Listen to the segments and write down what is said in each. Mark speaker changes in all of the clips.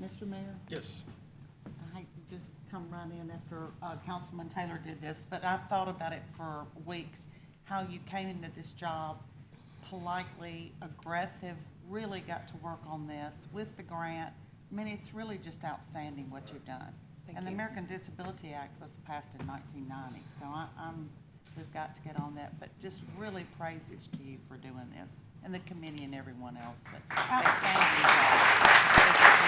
Speaker 1: Mr. Mayor,
Speaker 2: Yes.
Speaker 1: I hate to just come right in after uh, Councilman Taylor did this, but I've thought about it for weeks, how you came into this job politely, aggressive, really got to work on this with the grant. I mean, it's really just outstanding what you've done.
Speaker 3: Thank
Speaker 1: And the
Speaker 3: you.
Speaker 1: American Disability Act was passed in 1990, so I- I'm, we've got to get on that. But just really praises to you for doing this, and the committee and everyone else, but outstanding job.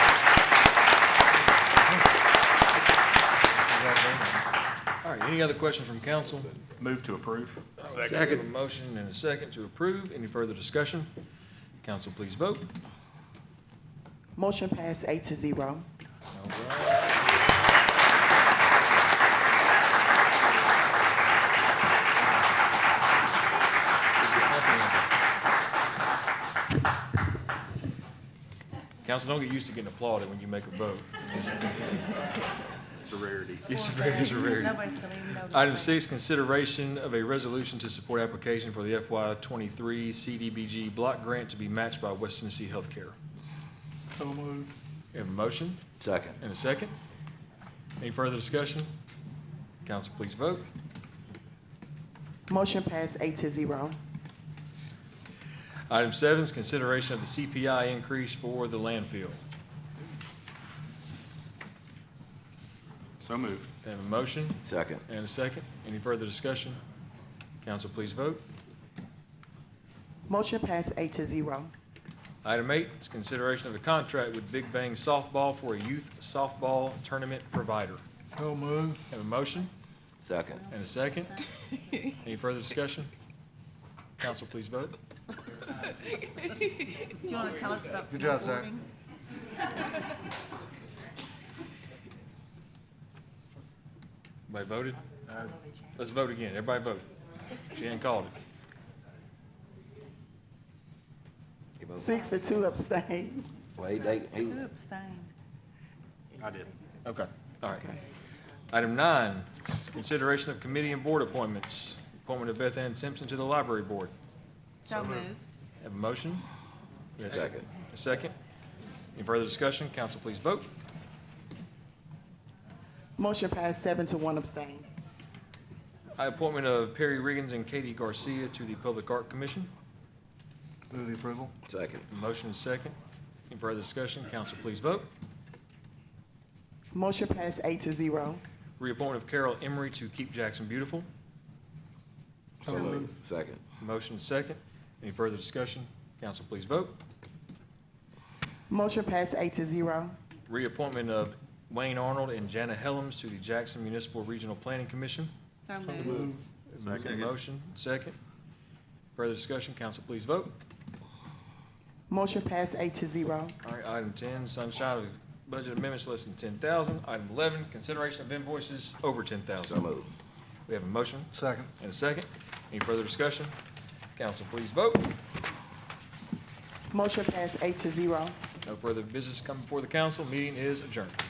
Speaker 2: All right, any other questions from council?
Speaker 4: Move to approve.
Speaker 2: We have a motion and a second to approve. Any further discussion? Council, please vote.
Speaker 5: Motion passed eight to zero.
Speaker 2: Council, don't get used to getting applauded when you make a vote.
Speaker 4: It's a rarity.
Speaker 2: It's very, it's a rarity.
Speaker 1: Nobody's gonna even notice.
Speaker 2: Item six, consideration of a resolution to support application for the FY twenty-three CDBG block grant to be matched by West Tennessee Healthcare.
Speaker 4: So moved.
Speaker 2: We have a motion
Speaker 4: Second.
Speaker 2: and a second. Any further discussion? Council, please vote.
Speaker 5: Motion passed eight to zero.
Speaker 2: Item seven is consideration of the CPI increase for the landfill.
Speaker 4: So moved.
Speaker 2: We have a motion
Speaker 4: Second.
Speaker 2: and a second. Any further discussion? Council, please vote.
Speaker 5: Motion passed eight to zero.
Speaker 2: Item eight is consideration of a contract with Big Bang Softball for a youth softball tournament provider.
Speaker 4: So moved.
Speaker 2: Have a motion
Speaker 4: Second.
Speaker 2: and a second. Any further discussion? Council, please vote.
Speaker 1: Do you want to tell us about
Speaker 4: Good job, Zach.
Speaker 1: snowboarding?
Speaker 2: Everybody voted? Let's vote again. Everybody voted. She ain't called it.
Speaker 5: Six to two abstain.
Speaker 6: Well, he, they, he,
Speaker 1: Who abstained?
Speaker 4: I did.
Speaker 2: Okay, all right. Item nine, consideration of committee and board appointments. Appointment of Beth Ann Simpson to the library board.
Speaker 1: So moved.
Speaker 2: Have a motion? We have a
Speaker 6: Second.
Speaker 2: A second. Any further discussion? Council, please vote.
Speaker 5: Motion passed seven to one abstain.
Speaker 2: I appointment of Perry Riggins and Katie Garcia to the Public Art Commission.
Speaker 4: Move the approval.
Speaker 6: second,
Speaker 2: Motion is second. Any further discussion? Council, please vote.
Speaker 5: Motion passed eight to zero.
Speaker 2: Reappointment of Carol Emery to Keep Jackson Beautiful.
Speaker 6: second,
Speaker 2: Motion is second. Any further discussion? Council, please vote.
Speaker 5: Motion passed eight to zero.
Speaker 2: Reappointment of Wayne Arnold and Jana Helms to the Jackson Municipal Regional Planning Commission.
Speaker 1: So moved.
Speaker 4: Second.
Speaker 2: Motion, second. Further discussion? Council, please vote.
Speaker 5: Motion passed eight to zero.
Speaker 2: All right, item ten, sunshine of budget amendments less than ten thousand. Item eleven, consideration of invoices over ten
Speaker 6: so
Speaker 2: thousand.
Speaker 6: moved,
Speaker 2: We have a motion
Speaker 4: Second.
Speaker 2: and a second. Any further discussion? Council, please vote.
Speaker 5: Motion passed eight to zero.
Speaker 2: No further business come before the council. Meeting is adjourned.